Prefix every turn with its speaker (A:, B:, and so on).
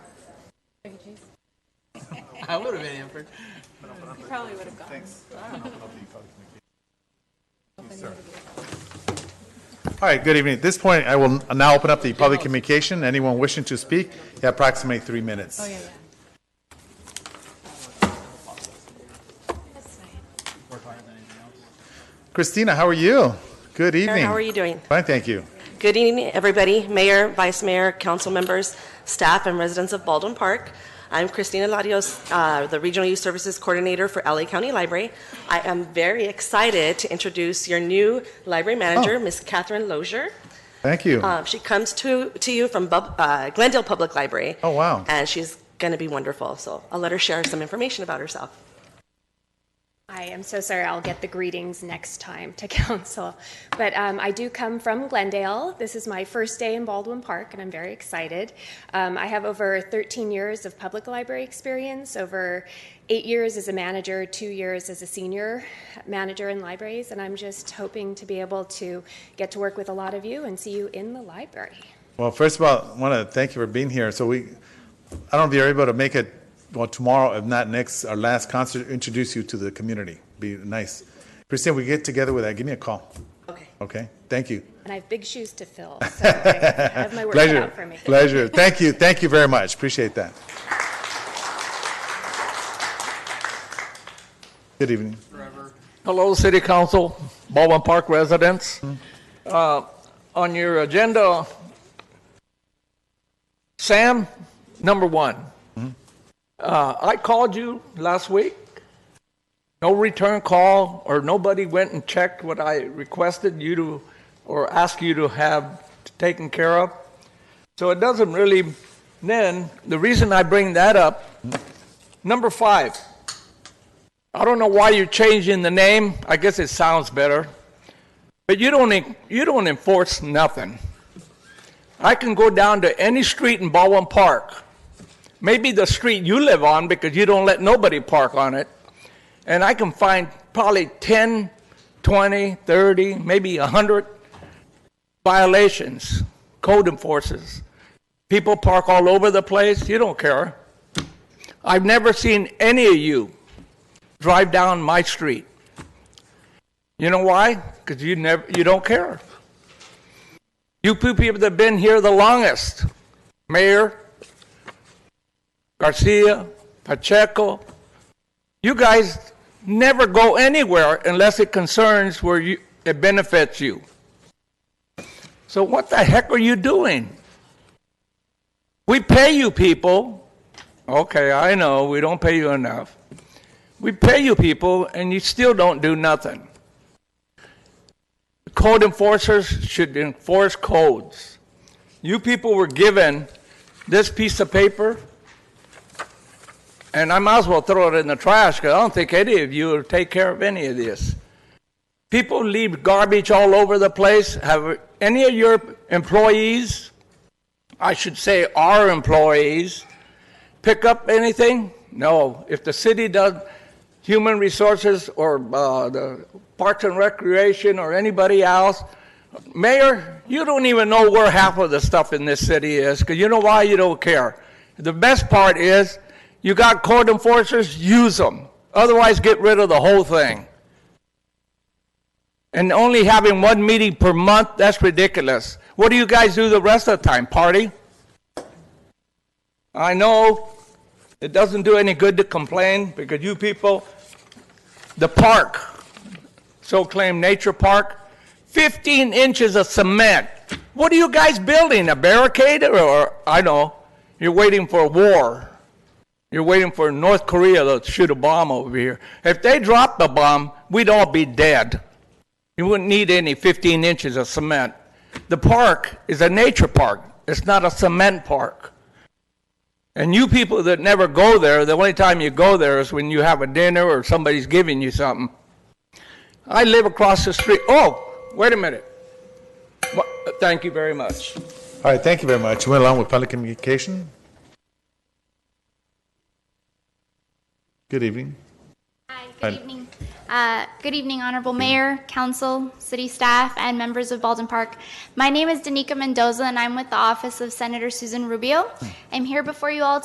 A: I would have been Hanford.
B: You probably would have gone.
C: Thanks. All right, good evening. At this point, I will now open up the public communication. Anyone wishing to speak, you have approximately three minutes.
B: Oh, yeah, yeah.
C: Christina, how are you? Good evening.
D: How are you doing?
C: Fine, thank you.
D: Good evening, everybody, mayor, vice mayor, council members, staff, and residents of Baldwin Park. I'm Christina Larios, uh, the Regional Youth Services Coordinator for LA County Library. I am very excited to introduce your new library
C: Oh.
D: manager, Ms. Catherine Lozier.
C: Thank you.
D: Um, She comes to, to you from Bub- uh, Glendale Public Library.
C: Oh, wow.
D: And she's going to be wonderful, so I'll let her share some information about herself.
E: I am so sorry. I'll get the greetings next time to council. But um, I do come from Glendale. This is my first day in Baldwin Park, and I'm very excited. Um, I have over 13 years of public library experience, over eight years as a manager, two years as a senior manager in libraries, and I'm just hoping to be able to get to work with a lot of you and see you in the library.
C: Well, first of all, I want to thank you for being here. So we, I don't know if you're able to make it, well, tomorrow, if not next, our last concert, introduce you to the community. Be nice. Christina, we get together with that. Give me a call,
D: Okay.
C: okay? Thank you.
E: And I have big shoes to fill, so I have my work cut
C: Pleasure.
E: out for me.
C: Pleasure. Thank you. Thank you very much. Appreciate that. Good evening.
F: Hello, City Council, Baldwin Park residents. Uh, On your agenda, Sam, number one. Uh, I called you last week. No return call, or nobody went and checked what I requested you to, or asked you to have taken care of. So it doesn't really, then, the reason I bring that up, number five, I don't know why you're changing the name. I guess it sounds better. But you don't, en- you don't enforce nothing. I can go down to any street in Baldwin Park, maybe the street you live on because you don't let nobody park on it, and I can find probably 10, 20, 30, maybe 100 violations, code enforces. People park all over the place, you don't care. I've never seen any of you drive down my street. You know why? Because you never, you don't care. You people that have been here the longest, Mayor Garcia, Pacheco, you guys never go anywhere unless it concerns where you, it benefits you. So what the heck are you doing? We pay you people. Okay, I know we don't pay you enough. We pay you people and you still don't do nothing. Code enforcers should enforce codes. You people were given this piece of paper, and I might as well throw it in the trash because I don't think any of you will take care of any of this. People leave garbage all over the place. Have any of your employees, I should say our employees, pick up anything? No. If the city does human resources or uh, the parks and recreation or anybody else, mayor, you don't even know where half of the stuff in this city is because you know why you don't care. The best part is you got code enforcers, use them. Otherwise, get rid of the whole thing. And only having one meeting per month, that's ridiculous. What do you guys do the rest of the time? Party? I know it doesn't do any good to complain because you people, the park, so-claimed nature park, 15 inches of cement. What are you guys building? A barricade or- or, I know, you're waiting for a war. You're waiting for North Korea to shoot a bomb over here. If they dropped the bomb, we'd all be dead. You wouldn't need any 15 inches of cement. The park is a nature park. It's not a cement park. And you people that never go there, the only time you go there is when you have a dinner or somebody's giving you something. I live across the street. Oh, wait a minute. Wha- Thank you very much.
C: All right, thank you very much. Went along with public communication. Good evening.
G: Hi,
C: Fine.
G: good evening. Uh, Good evening, Honorable Mayor, Council, City Staff, and members of Baldwin Park. My name is Danica Mendoza, and I'm with the Office of Senator Susan Rubio. I'm here before you all